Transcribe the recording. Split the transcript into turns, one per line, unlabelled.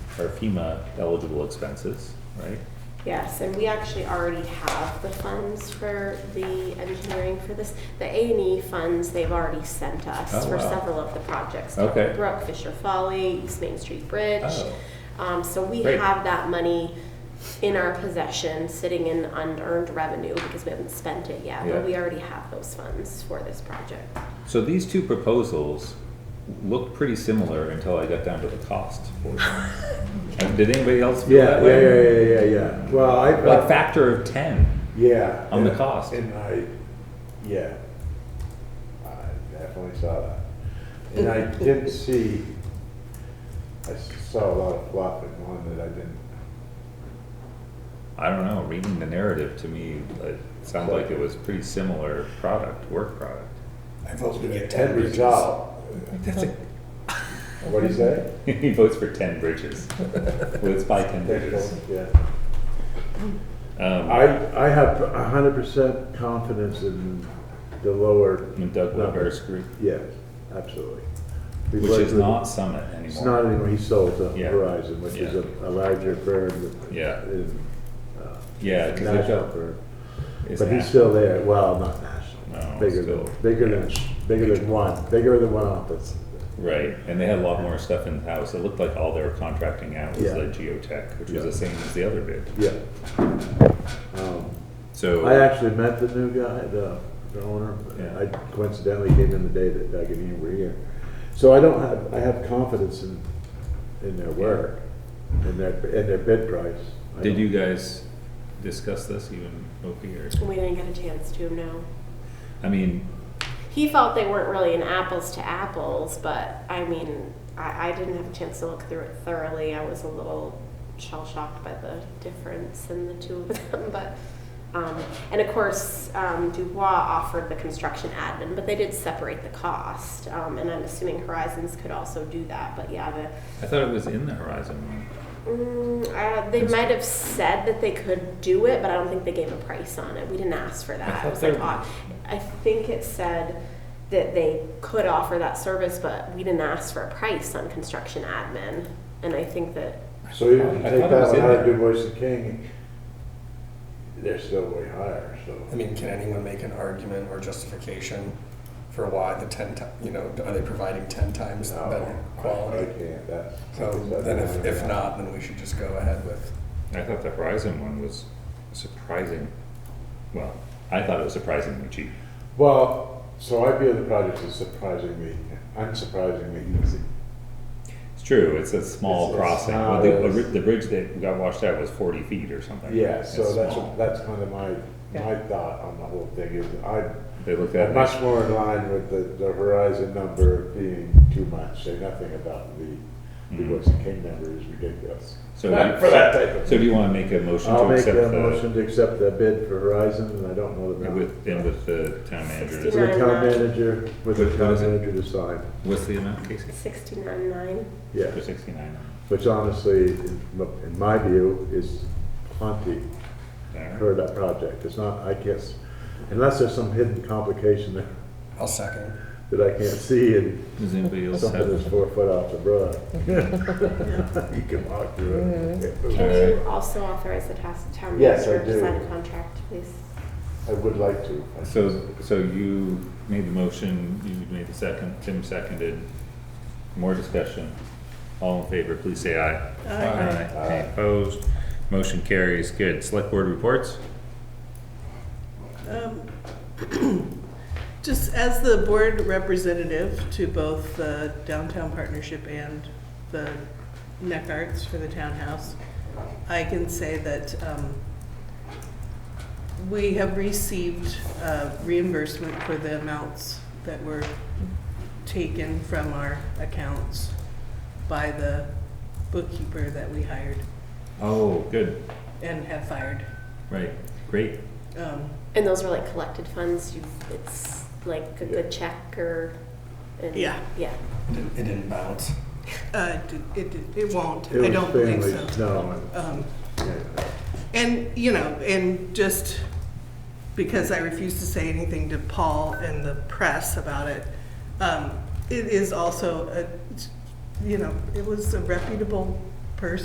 are FEMA eligible expenses, right?
Yes, and we actually already have the funds for the engineering for this. The A and E funds, they've already sent us
Oh,
for
wow.
several of the projects.
Okay.
Brook, Fisher Folly, East Main Street Bridge.
Oh.
Um, so we
Great.
have that money in our possession, sitting in unearned revenue because we haven't spent it yet.
Yeah.
But we already have those funds for this project.
So these two proposals looked pretty similar until I got down to the cost. for them. And Did anybody else feel
Yeah,
that
yeah,
way?
yeah, yeah, yeah, yeah. Well, I,
Like factor of ten.
yeah.
on the
yeah.
cost.
And I, yeah. I definitely saw that. And I didn't see, I saw a lot of fluff in one that I didn't,
I don't know, reading the narrative to me, it sounded like it was pretty similar product, work product.
I vote we get
end
ten bridges.
result.
That's a.
What'd he say?
He votes for ten bridges. Well, it's by ten bridges.
Yeah.
Um,
I, I have a hundred percent confidence in the lower,
and Doug Weber's group,
yeah, absolutely. We've
which
worked
is
with-
not Summit anymore.
It's not anymore, he sold to
Yeah.
Verizon, which is a, a larger firm. that-
Yeah.
in, uh,
Yeah, 'cause they've
National
got,
firm.
it's
But he's
that.
still there, well, not national.
No,
Bigger
still,
than, bigger than, bigger than one, bigger than one office.
Right, and they had a lot more stuff in house. It looked like all they were contracting out was
Yeah.
the geotech, which was
Yeah.
the same as the other bid.
Yeah. Um, I
So,
actually met the new guy, the, the owner.
Yeah.
I coincidentally came in the day that Doug and Ian were here. So I don't have, I have confidence in, in their work, in their, in their bid price. I
did
don't-
you guys discuss this even over here?
We didn't get a chance to, no.
I mean,
He felt they weren't really an apples to apples, but I mean, I, I didn't have a chance to look through it thoroughly. I was a little shell shocked by the difference in the two of them, but. Um, and of course, um, Dubois offered the construction admin, but they did separate the cost. Um, and I'm assuming Horizons could also do that. But yeah, the
I thought it was in the horizon one.
Mm, uh, they might have said that they could do it, but I don't think they gave a price on it. We didn't ask for
I
that.
thought
It was like,
they-
odd. I think it said that they could offer that service, but we didn't ask for a price on construction admin. And I think that,
So even if you
I
take
thought it
that
was
one
in
out of
there.
DuBois and King, they're still way higher,
I
so.
mean, can anyone make an argument or justification for why the ten, ti- you know, are they providing ten times
No,
better
I- I
quality?
can't, that's.
So then if, if not, then we should just go ahead with,
I thought the horizon one was surprising. Well, I thought it was surprisingly cheap.
Well, so I view the project as surprisingly, unsurprisingly easy.
It's true, it's a small
It's- it's
crossing. Well,
not
the,
as-
the bri- the bridge that got washed out was forty feet or something.
Yeah, so
It's
that's,
small.
that's kind of my, my
Yeah.
thought on the whole thing is I'm
They looked at it.
much more in line with the, the Horizon number being too much, say nothing about the, the
Mhm.
Mm-hmm.
Woodson King number is ridiculous.
So
Not
you-
for that type of-
So do you wanna make a motion
I'll
to
make
accept
a
the,
motion to accept the bid for Horizon and I don't know the. amount.
with, and with the town manager?
With the town
69.
manager, with
What-
the
what
town
is it?
manager to sign,
What's the amount, Casey?
sixty-nine nine.
yeah.
For sixty-nine, uh,
Which honestly, in m- in my view, is plenty
alright,
for that project. It's not, I guess, unless there's some hidden complication there
I'll second.
that I can't see and
does anybody else
something that's
have?
four foot off the broad. You can walk through
Can
Mm-hmm.
it.
Okay.
you also authorize the task town
Yes, I
manager to
do.
sign a contract, please?
I would like to.
So, so you made the motion, you made the second, Tim seconded, more discussion. All in favor, please say aye. Aye. Any opposed? Motion carries, good. Select board reports?
Um, Just as the board representative to both the downtown partnership and the neck arts for the townhouse, I can say that um, we have received uh, reimbursement for the amounts that were taken from our accounts by the bookkeeper that we hired
Oh, good,
and have fired.
right, great.
Um,
And those were like collected funds. You, it's like a good check or. and-
Yeah.
Yeah.
It didn't- It didn't bounce.
uh, it- It it won't,
It was
I don't think so.
family- No,
Um,
yeah.
And, you know, and just because I refuse to say anything to Paul and the press about it, um, it is also a, you know, it was a reputable